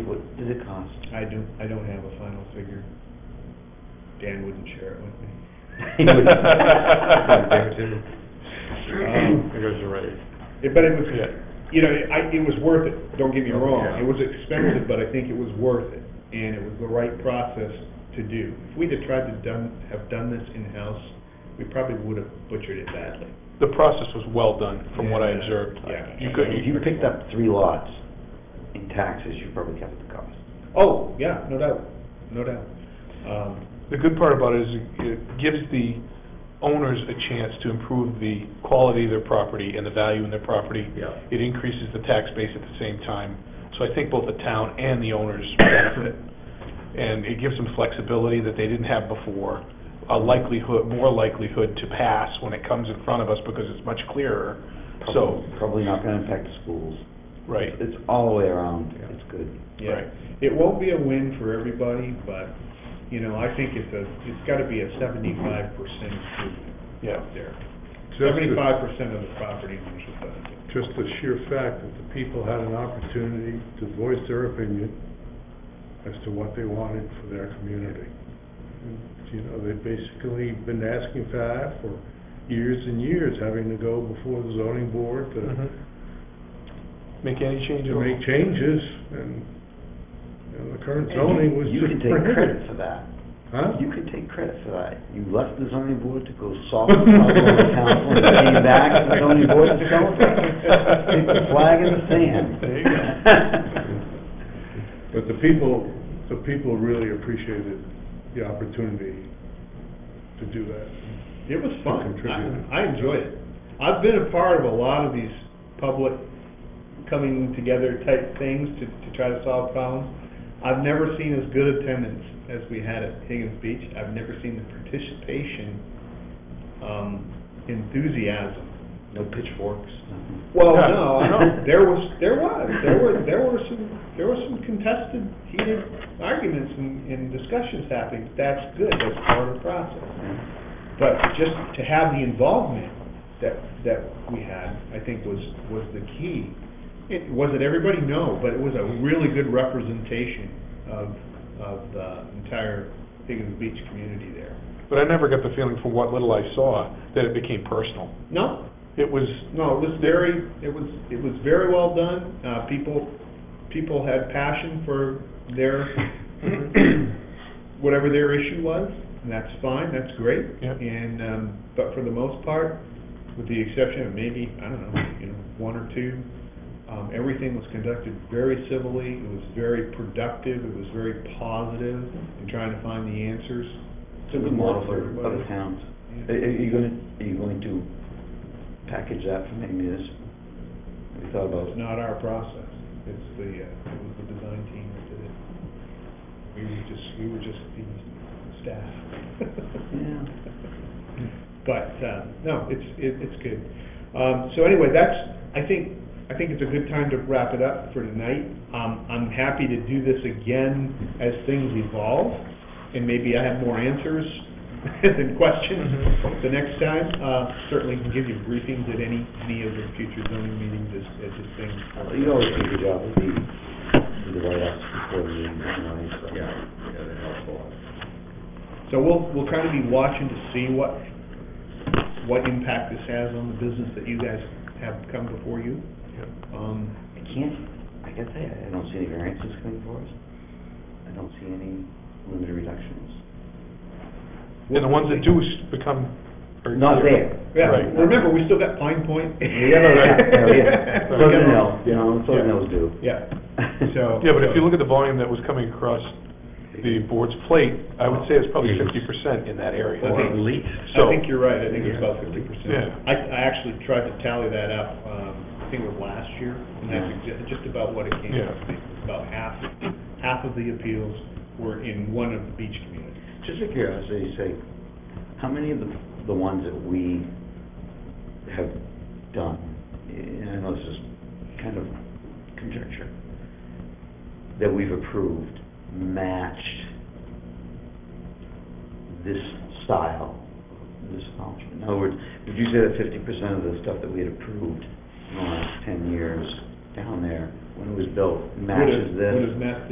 the cost? I don't, I don't have a final figure. Dan wouldn't share it with me. He would- There too. Um, It goes to raise. it- But it was, Yeah. you know, it- I, it was worth it, don't get me wrong. Yeah. It was expensive, but I think it was worth it, and it was the right process to do. If we'd have tried to done, have done this in-house, we probably would have butchered it badly. The process was well done, from what I Yeah. observed. Yeah. You could, If you picked up three lots in taxes, you probably covered the cost. Oh, yeah, no doubt, no doubt. Um, The good part about it is it gives the owners a chance to improve the quality of their property and the value in their property. Yeah. It increases the tax base at the same time. So I think both the town and the owners benefit. And it gives them flexibility that they didn't have before, a likelihood, more likelihood to pass when it comes in front of us because it's much clearer. So, Probably- Probably not gonna impact the schools. right, It's all the way around, Yeah. it's good. Yeah, Right. it won't be a win for everybody, but, you know, I think it's a, it's gotta be a seventy-five percent improvement yeah. out there. Just the- Seventy-five percent of the property owners will benefit. Just the sheer fact that the people had an opportunity to voice their opinion as to what they wanted for their community. You know, they've basically been asking for that for years and years, having to go before the zoning board to, Mhm. Mm-hmm. Make any Mm-hmm. change at to all? make changes, and, you know, the current And you- zoning was You can just... take credit for that. Huh? You can take credit for that. You left the zoning board to go solve the problem in council and came back and the zoning board is going Stick the flag in the sand. There you But the people, the people really appreciated the opportunity to do that. It was fun. Contributed. I, I enjoyed it. I've been a part of a lot of these public coming together type things to, to try to solve problems. I've never seen as good attendance as we had at Higgins Beach. I've never seen the participation, um, enthusiasm No pitchforks. nothing. Well, Yeah. no, no, there was, there was, there were, there were some, there were some contested, heated arguments and, and discussions happening. That's good, that's part of the process. But just to have the involvement that, that we had, I think was, was the key. It, was it everybody? No, but it was a really good representation of, of the entire Higgins Beach community there. But I never got the feeling from what little I saw that it became personal. No, It was, No, it was very, it was, it was very well done. Uh, people, people had passion for their, Mm-hmm. whatever their issue was, and that's fine, that's great. Yep. And, um, but for the most part, with the exception of maybe, I don't know, you know, one or two, um, everything was conducted very civilly, it was very productive, it was very positive in trying to find the answers. It's a good model for other towns. Are are you gonna, are you going to package that for maybe this? We thought about It's not our process, it's the, uh, it was the design team that did it. We were just, we were just the staff. Yeah. But, uh, no, it's, it, it's good. Um, so anyway, that's, I think, I think it's a good time to wrap it up for tonight. Um, I'm happy to do this again as things evolve, and maybe I have more answers than questions the next time. Uh, certainly can give you briefings at any, any of the future zoning meetings as, as this thing. Well, Uh, You always do a good job of the, the write-ups before the meeting anyway, so. yeah, they helped a lot. So we'll, we'll kind of be watching to see what, what impact this has on the business that you guys have come before you. Yep. Um, I can't, I guess I, I don't see any variances coming for us. I don't see any limited reductions. and the ones that do s- become. are- Not there. Yeah, Right. remember, we still got Pine Yeah, Point. no, yeah, yeah, yeah. We Southern got- Hills, you know, Southern Hills do. Yeah, so. Yeah, but if you look at the volume that was coming across the board's plate, I would say it's probably fifty percent in that area. I think- I So- think you're right, I think it's about fifty percent. Yeah. I, I actually tried to tally that up, um, I think it was last year, and that's exa- just about what it came Mm-hmm. Yeah. out to be. About half, half of the appeals were in one of the beach communities. Just a curiosity, say, how many of the, the ones that we have done, and I know this is kind of conjecture, that we've approved matched this style, this function? In other words, would you say that fifty percent of the stuff that we had approved in the last ten years down there, when it was built, Would have- matches this? Would have matched